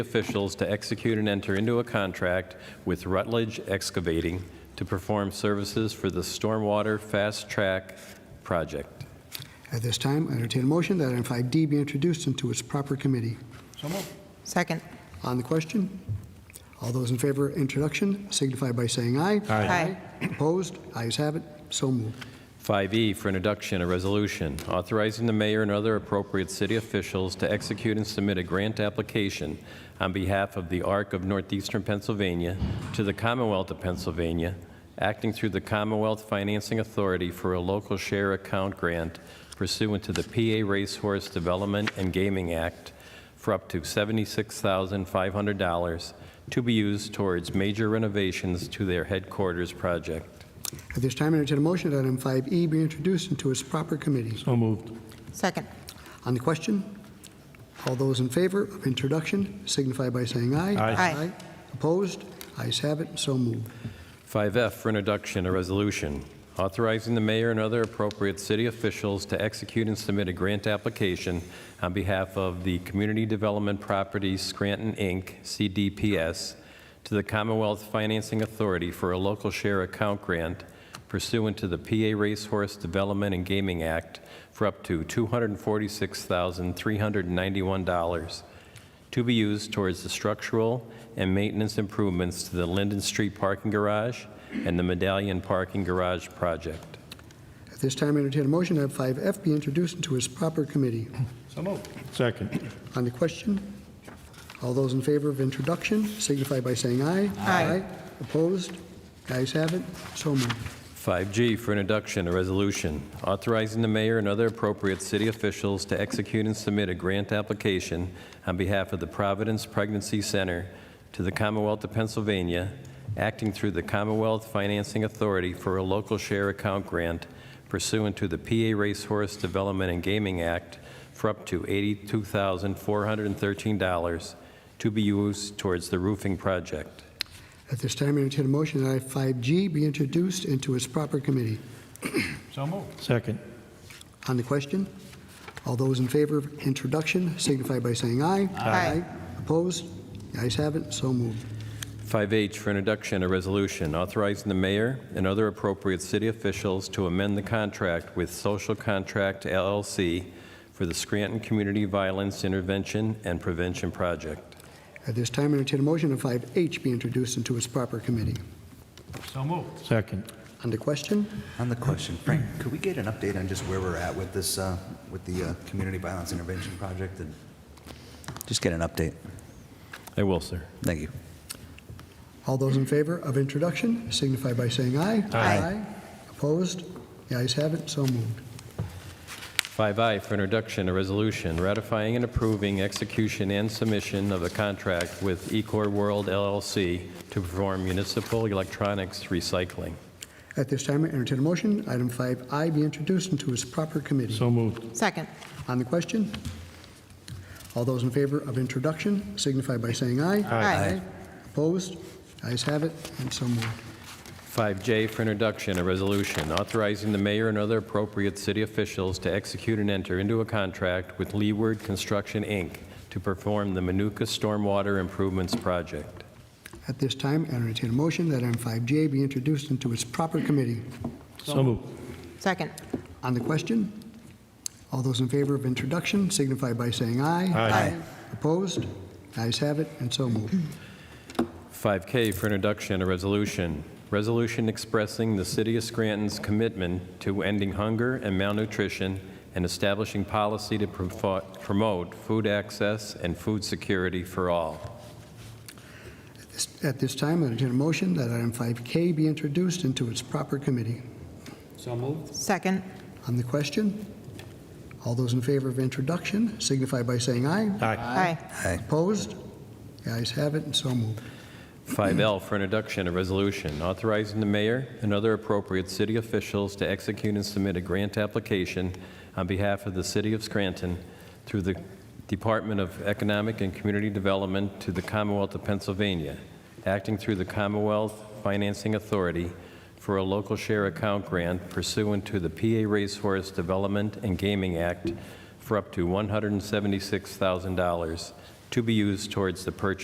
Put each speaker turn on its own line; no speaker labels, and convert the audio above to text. officials to execute and enter into a contract with Rutledge Excavating to perform services for the Stormwater Fast Track Project.
At this time, I entertain a motion that item 5D be introduced into its proper committee.
Second.
On the question, all those in favor of introduction signify by saying aye.
Aye.
Opposed? Ayes have it, so moved.
5E E for introduction, a resolution authorizing the mayor and other appropriate city officials to execute and submit a grant application on behalf of the Arc of Northeastern Pennsylvania to the Commonwealth of Pennsylvania, acting through the Commonwealth Financing Authority for a local share account grant pursuant to the PA Racehorse Development and Gaming Act for up to $76,500 to be used towards major renovations to their headquarters project.
At this time, I entertain a motion that item 5E be introduced into its proper committee.
So moved.
Second.
On the question, all those in favor of introduction signify by saying aye.
Aye.
Aye.
Opposed? Ayes have it, so moved.
5F for introduction, a resolution authorizing the mayor and other appropriate city officials to execute and submit a grant application on behalf of the Community Development Properties Scranton, Inc., CDPS, to the Commonwealth Financing Authority for a local share account grant pursuant to the PA Racehorse Development and Gaming Act for up to $246,391 to be used towards the structural and maintenance improvements to the Linden Street Parking Garage and the Medallion Parking Garage project.
At this time, I entertain a motion that item 5F be introduced into its proper committee.
Second.
On the question, all those in favor of introduction signify by saying aye.
Aye.
Opposed? Ayes have it, so moved.
5G for introduction, a resolution authorizing the mayor and other appropriate city officials to execute and submit a grant application on behalf of the Providence Pregnancy Center to the Commonwealth of Pennsylvania, acting through the Commonwealth Financing Authority for a local share account grant pursuant to the PA Racehorse Development and Gaming Act for up to $82,413 to be used towards the roofing project.
At this time, I entertain a motion that I-5G be introduced into its proper committee.
Second.
On the question, all those in favor of introduction signify by saying aye.
Aye.
Opposed? The ayes have it, so moved.
5H for introduction, a resolution authorizing the mayor and other appropriate city officials to amend the contract with Social Contract LLC for the Scranton Community Violence Intervention and Prevention Project.
At this time, I entertain a motion that 5H be introduced into its proper committee.
Second.
On the question,
On the question, Frank, could we get an update on just where we're at with this, uh, with the uh, Community Violence Intervention Project? and Just get an update.
I will, sir.
Thank you.
all those in favor of introduction signify by saying aye.
Aye.
Opposed? The ayes have it, so moved.
5I for introduction, a resolution ratifying and approving execution and submission of a contract with Ecor World LLC to perform municipal electronics recycling.
At this time, I entertain a motion, item 5I be introduced into its proper committee.
So moved.
Second.
On the question, all those in favor of introduction signify by saying aye.
Aye. Aye.
Opposed? Ayes have it, and so moved.
5J for introduction, a resolution authorizing the mayor and other appropriate city officials to execute and enter into a contract with Leeward Construction, Inc. to perform the Manuka Stormwater Improvements Project.
At this time, I entertain a motion that item 5J be introduced into its proper committee.
So moved.
Second.
On the question, all those in favor of introduction signify by saying aye.
Aye.
Opposed? Ayes have it, and so moved.
5K for introduction, a resolution. Resolution expressing the city of Scranton's commitment to ending hunger and malnutrition and establishing policy to profo- promote food access and food security for all.
At this time, I entertain a motion that item 5K be introduced into its proper committee.
Second.
On the question, all those in favor of introduction signify by saying aye.
Aye.
Aye.
Opposed? The ayes have it, and so moved.
5L for introduction, a resolution authorizing the mayor and other appropriate city officials to execute and submit a grant application on behalf of the city of Scranton through the Department of Economic and Community Development to the Commonwealth of Pennsylvania, acting through the Commonwealth Financing Authority for a local share account grant pursuant to the PA Racehorse Development and Gaming Act for up to $176,000 to be used towards the purchase